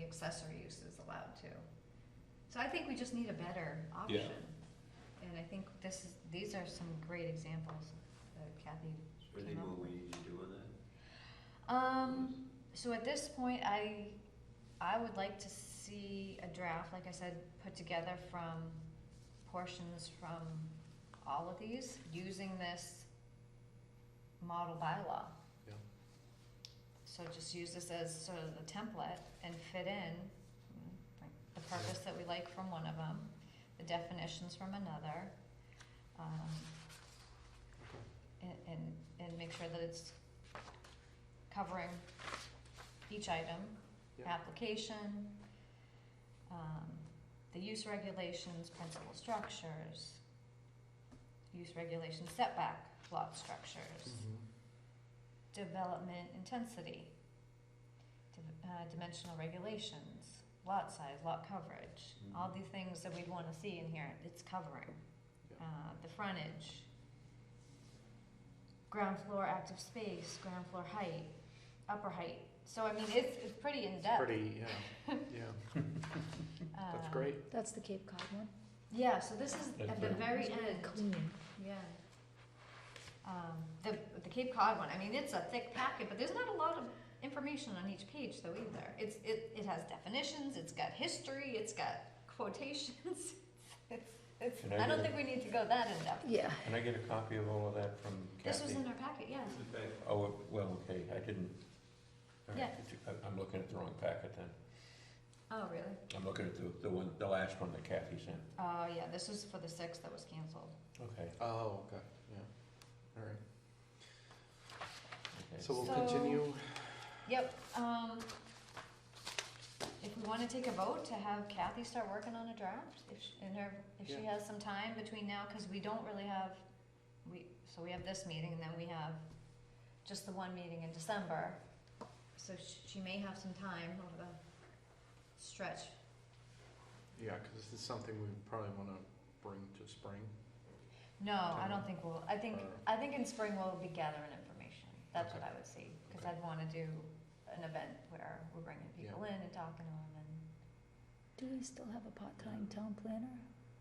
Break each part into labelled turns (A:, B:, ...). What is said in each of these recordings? A: accessory use is allowed too. So I think we just need a better
B: Yeah.
A: option. And I think this is, these are some great examples that Kathy
C: Is there anything more we need to do on that?
A: Um, so at this point, I, I would like to see a draft, like I said, put together from portions from all of these, using this model bylaw.
B: Yeah.
A: So just use this as sort of the template and fit in mm, like the purpose that we like from one of them, the definitions from another. Um, and, and, and make sure that it's covering each item,
B: Yeah.
A: application, um, the use regulations, principal structures, use regulation setback, lot structures,
B: Mm-hmm.
A: development intensity, div- uh, dimensional regulations, lot size, lot coverage,
B: Mm-hmm.
A: all
C: Mhm.
A: the things that we'd wanna see in here, it's covering.
B: Yeah.
A: Uh, the frontage, ground floor active space, ground floor height, upper height, so I mean, it's, it's pretty in-depth.
B: Pretty, yeah, yeah, that's
A: Um,
B: great.
D: That's the Cape Cod one.
A: Yeah, so this is
C: That's
A: at the
C: good.
A: very
D: It's really
A: end,
D: Clean.
A: yeah. Um, the, the Cape Cod one, I mean, it's a thick packet, but there's not a lot of information on each page though either. It's, it, it has definitions, it's got history, it's got quotations, it's, it's,
E: Can I
A: I don't
E: get
A: think we need to go that in-depth.
D: Yeah.
E: Can I get a copy of all of that from
A: This was
E: Kathy?
A: in our packet, yeah.
C: Is it back?
E: Oh, it- well, okay, I didn't. all right,
A: Yeah.
E: did you- I- I'm looking at the wrong packet then.
A: Oh, really?
E: I'm looking at the, the one, the last one that Kathy sent.
A: Oh, yeah, this was for the six that was canceled.
E: Okay,
B: Oh, okay, yeah, all right.
E: okay.
B: So we'll
A: So-
B: continue,
A: Yep, um, if we wanna take a vote to have Kathy start working on a draft, if she, in her, if she
B: Yeah.
A: has some time between now, cause we don't really have, we, so we have this meeting, and then we have just the one meeting in December. So sh- she may have some time over the stretch,
B: yeah, cause this is something we probably wanna bring to spring.
A: no, I
B: Timeline.
A: don't think we'll, I think,
B: Or-
A: I think in spring we'll be gathering information, that's what I would see, cause
B: Uh. Okay.
A: I'd wanna do an event where we're bringing people in and talking to them and.
D: Do we still have a part-time town planner?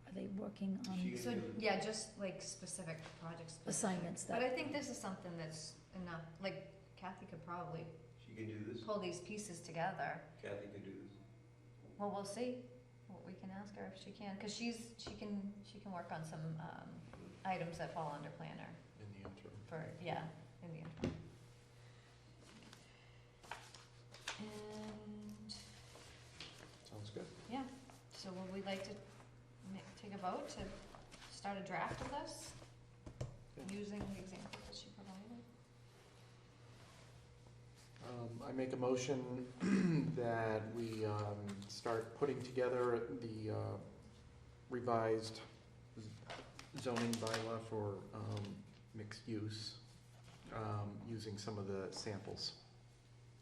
D: Are they working
B: She-
D: on
A: Um, So,
B: do-
A: yeah, just like specific projects.
D: assignments
A: But I
D: that,
A: think this is something that's enough, like Kathy could probably
C: She can do this?
A: pull these pieces together.
C: Kathy can do this?
A: Well, we'll see, what we can ask her if she can, cause she's, she can, she can work on some, um, items that fall under planner
B: In the interim.
A: for, yeah, in the interim. And,
B: Sounds good.
A: yeah, so would we like to ma- take a vote to start a draft of this?
B: Yeah.
A: Using the example that she provided?
B: Um, I make a motion that we, um, start putting together the, uh, revised z- zoning bylaw for, um, mixed use, um, using some of the samples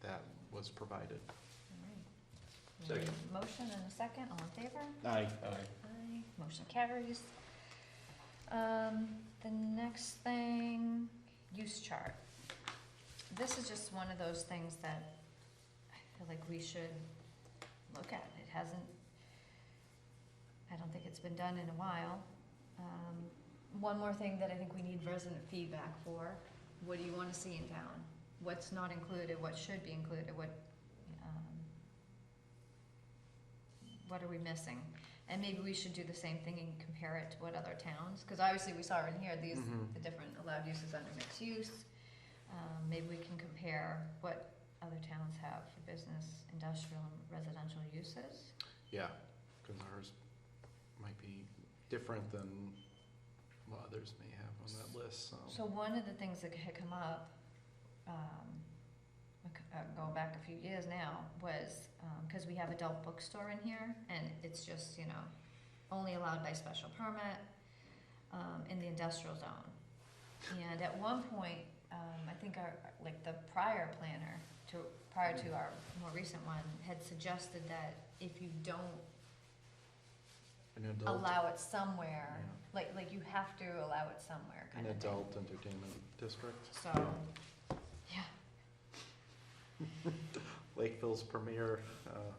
B: that was provided.
A: Alright.
C: Second.
A: Motion and a second, all in favor?
E: Aye.
A: Aye. Motion carries. Um, the next thing, use chart. This is just one of those things that I feel like we should look at. It hasn't, I don't think it's been done in a while. Um, one more thing that I think we need resident feedback for, what do you wanna see in town? What's not included, what should be included, what, um, what are we missing? And maybe we should do the same thing and compare it to what other towns, because obviously we saw in here these,
B: Mhm.
A: the different allowed uses under mixed use. Um, maybe we can compare what other towns have for business, industrial, and residential uses.
B: Yeah, because ours might be different than what others may have on that list, so.
A: So one of the things that had come up, um, a c- uh, going back a few years now, was, um 'cause cause we have adult bookstore in here, and it's just, you know, only allowed by special permit, um, in the industrial zone. And at one point, um, I think our, like the prior planner to, prior to our more recent one, had suggested that if you don't
B: An adult,
A: allow it somewhere,
B: Yeah.
A: like, like you have to allow it somewhere,
B: an
A: kind of thing.
B: adult entertainment district,
A: So, yeah.
B: Lakeville's premier, uh,